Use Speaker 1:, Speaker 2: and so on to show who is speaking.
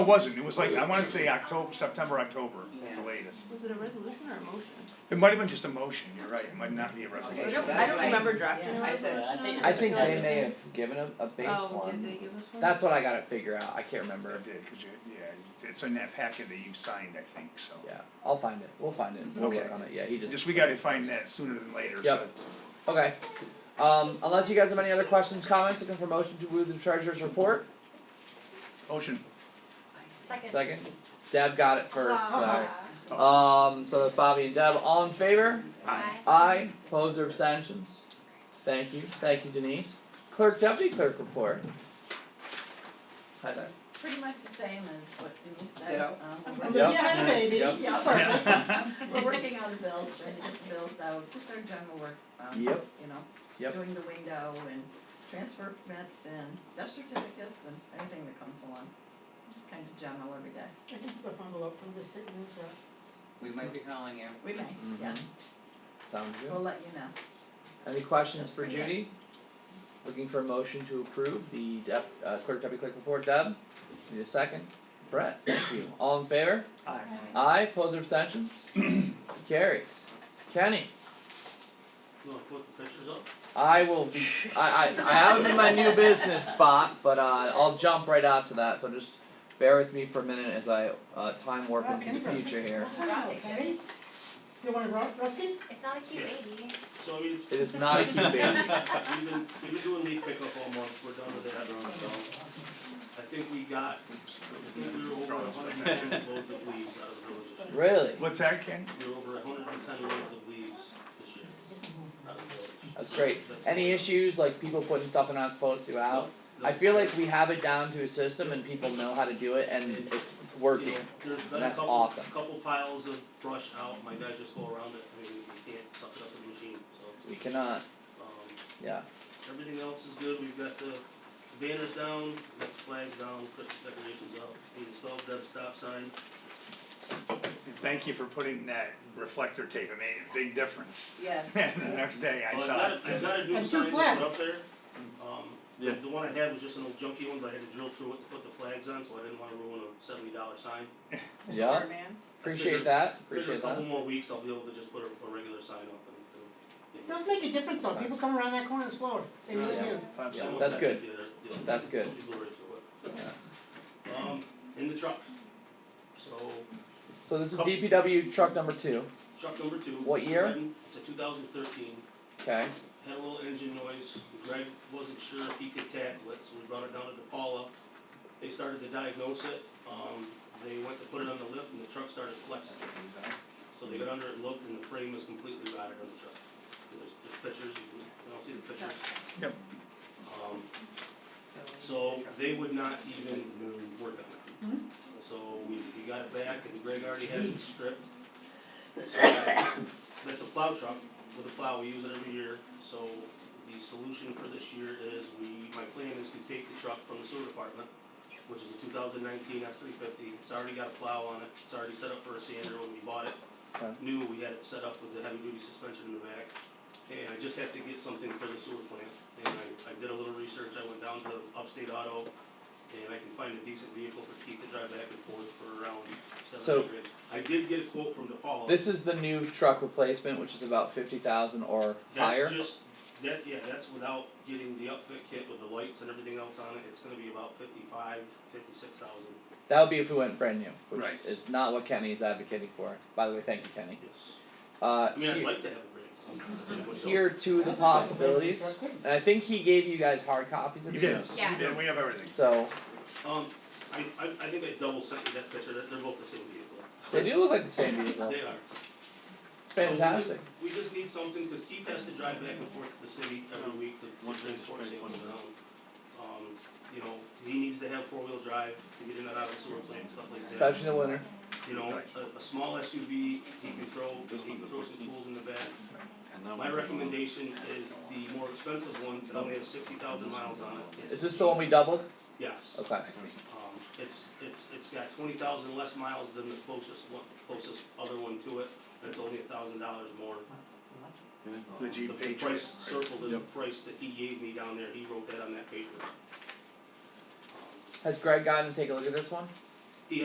Speaker 1: It wasn't, it was like, I wanna say October, September, October, at the latest.
Speaker 2: Was it a resolution or a motion?
Speaker 1: It might have been just a motion, you're right, it might not be a
Speaker 2: I
Speaker 1: resolution.
Speaker 2: don't, I don't
Speaker 3: That's
Speaker 2: remember drafting a
Speaker 3: I said-
Speaker 2: resolution on it.
Speaker 4: I think
Speaker 2: so-
Speaker 4: they may have given him a base
Speaker 2: Oh, did they
Speaker 4: one.
Speaker 2: give us one?
Speaker 4: That's what I gotta figure out, I can't
Speaker 1: I
Speaker 4: remember.
Speaker 1: did, cause you, yeah, it's in that packet that you signed, I think, so.
Speaker 4: Yeah, I'll find it, we'll find it, we'll work
Speaker 1: Okay.
Speaker 4: on it, yeah, he just,
Speaker 1: Just, we gotta find that sooner than later, so.
Speaker 4: Yep. okay. Um, unless you guys have any other questions, comments, looking for motion to move the treasurer's report,
Speaker 1: Motion,
Speaker 5: Second.
Speaker 4: second? Deb got it first, sorry.
Speaker 5: Ah.
Speaker 1: Oh.
Speaker 4: Um, so that's Bobby and Deb, all in favor?
Speaker 1: aye.
Speaker 4: Aye, opposed or abstentions? Thank you, thank you Denise. Clerk Deputy Clerk report. Hi there.
Speaker 6: Pretty much the same as what Denise said.
Speaker 3: Ditto.
Speaker 6: Um,
Speaker 5: I'm
Speaker 4: Yep.
Speaker 6: Yeah, I had a baby,
Speaker 4: Yep.
Speaker 6: yeah, perfect.
Speaker 1: Yeah.
Speaker 6: We're working on the bills, trying to get the bills out, just our general work, um, you know.
Speaker 4: Yep. Yep.
Speaker 6: Doing the window and transfer permits and death certificates and anything that comes along, just kind of general every day.
Speaker 5: I can still follow up from the city news, uh,
Speaker 3: We might be calling you.
Speaker 6: We may, yes,
Speaker 4: Sounds good.
Speaker 6: we'll let you know.
Speaker 4: Any questions for Judy? Looking for a motion to approve the dep- uh clerk deputy clerk report, Deb? Need a second? Brett, thank you. All in favor?
Speaker 1: Aye.
Speaker 4: Aye, opposed or abstentions? Carries. Kenny,
Speaker 7: You wanna put the pictures up?
Speaker 4: I will be, I I I have him in my new business spot, but uh I'll jump right out to that, so just bear with me for a minute as I uh time warp into the future here.
Speaker 5: okay? You want to rock, Rusty?
Speaker 8: It's not a cute
Speaker 7: Yeah.
Speaker 8: baby.
Speaker 7: So I mean, it's.
Speaker 4: It is not a cute baby.
Speaker 7: We've been, we've been doing leaf pickup all month, we're done with that on the I think we got, I think we were over a hundred and ten loads of leaves out of the village this year.
Speaker 4: Really?
Speaker 1: What's that, Ken?
Speaker 7: We were over a hundred and ten loads of leaves this year, out of the village.
Speaker 4: That's great.
Speaker 7: That's-
Speaker 4: Any issues, like people putting stuff they're not supposed to out?
Speaker 7: No,
Speaker 4: I feel like we have it down to a system and people know how to do it and it's
Speaker 7: you
Speaker 4: working.
Speaker 7: know, There's been a
Speaker 4: That's
Speaker 7: couple,
Speaker 4: awesome.
Speaker 7: couple piles of brush out, my guys just go around it, I mean, we can't suck it up with the machine, so,
Speaker 4: We cannot,
Speaker 7: um,
Speaker 4: yeah,
Speaker 7: Everything else is good, we've got the banners down, we've got the flags down, Christmas decorations up, we installed that stop sign.
Speaker 1: And Thank you for putting that reflector tape, it made a big difference.
Speaker 6: Yes.
Speaker 1: And the next day I
Speaker 7: Well,
Speaker 1: saw
Speaker 7: I've got, I've
Speaker 1: it.
Speaker 7: got a new
Speaker 5: And two
Speaker 7: sign to put
Speaker 5: flags.
Speaker 7: up there, um, the, the one I had was just an old junky one, but I had to drill through it to put the flags on, so I didn't wanna ruin a seventy dollar sign.
Speaker 4: yeah, appreciate that,
Speaker 7: Figure
Speaker 4: appreciate
Speaker 7: a couple
Speaker 4: that.
Speaker 7: more weeks, I'll be able to just put a, a regular sign up and, and.
Speaker 5: Does make a difference though, people come around that corner slower, they really
Speaker 4: Yeah.
Speaker 5: do.
Speaker 1: Five
Speaker 4: Yeah,
Speaker 1: seconds.
Speaker 4: that's good.
Speaker 7: Yeah, yeah.
Speaker 4: That's good.
Speaker 7: Some people are into it. Um, in the truck, so
Speaker 4: So this is DPW truck number two,
Speaker 7: truck number two.
Speaker 4: What
Speaker 7: it's a
Speaker 4: year?
Speaker 7: red one, It's a two thousand thirteen.
Speaker 4: okay,
Speaker 7: had a little engine noise, Greg wasn't sure if he could tackle it, so we brought it down to DePaula. They started to diagnose it, um, they went to put it on the lift and the truck started flexing. So they got under it, looked, and the frame was completely rotted on the truck. There's, there's pictures, you can, you don't see the pictures.
Speaker 1: Yep.
Speaker 7: Um, so they would not even work on it. So we, we got it back and Greg already has it stripped. So that's a plow truck with a plow, we use it every year, so the solution for this year is we, my plan is to take the truck from the sewer department, which is a two thousand nineteen F three fifty, it's already got a plow on it, it's already set up for a sander when we bought it.
Speaker 4: Okay.
Speaker 7: New, we had it set up with the heavy duty suspension in the back, and I just have to get something for the sewer plant, and I, I did a little research, I went down to Upstate Auto, and I can find a decent vehicle for Keith to drive back and forth for around
Speaker 4: So-
Speaker 7: seven hundred. I did get a quote from DePaul.
Speaker 4: this is the new truck replacement, which is about fifty thousand or higher.
Speaker 7: That's just, that, yeah, that's without getting the upfit kit with the lights and everything else on it, it's gonna be about fifty-five, fifty-six thousand,
Speaker 4: That would be if we went brand new, which
Speaker 1: Right.
Speaker 4: is not what Kenny is advocating for, by the way, thank you Kenny.
Speaker 7: yes.
Speaker 4: Uh,
Speaker 7: I mean, I'd
Speaker 4: here,
Speaker 7: like to have a break.
Speaker 4: here are two of the possibilities, and I think he gave you guys hard copies of
Speaker 1: You
Speaker 4: these.
Speaker 1: did,
Speaker 8: Yeah.
Speaker 1: you did, we have everything.
Speaker 4: So,
Speaker 7: Um, I, I, I think I double sent you that picture, they're, they're both the same vehicle,
Speaker 4: they do look like the same vehicle,
Speaker 7: they are.
Speaker 4: it's
Speaker 7: So we just-
Speaker 4: fantastic.
Speaker 7: We just need something, cause Keith has to drive back and forth to the city every week to to transport samples around. Um, you know, he needs to have four-wheel drive to get in and out of the sewer plant, stuff like that.
Speaker 4: Especially in the winter.
Speaker 7: You know, a, a small SUV, he can throw, he can throw some tools in the back. My recommendation is the more expensive one, that only has sixty thousand miles on it.
Speaker 4: Is this the one we doubled?
Speaker 7: Yes, um,
Speaker 4: Okay.
Speaker 7: it's, it's, it's got twenty thousand less miles than the closest one, closest other one to it, and it's only a thousand dollars more.
Speaker 1: The
Speaker 7: The
Speaker 1: Jeep
Speaker 7: the
Speaker 1: Patriot.
Speaker 7: price
Speaker 1: right?
Speaker 7: circled is the price that he gave me down there, he wrote that on that paper.
Speaker 4: Has Greg gotten to take a look at this one?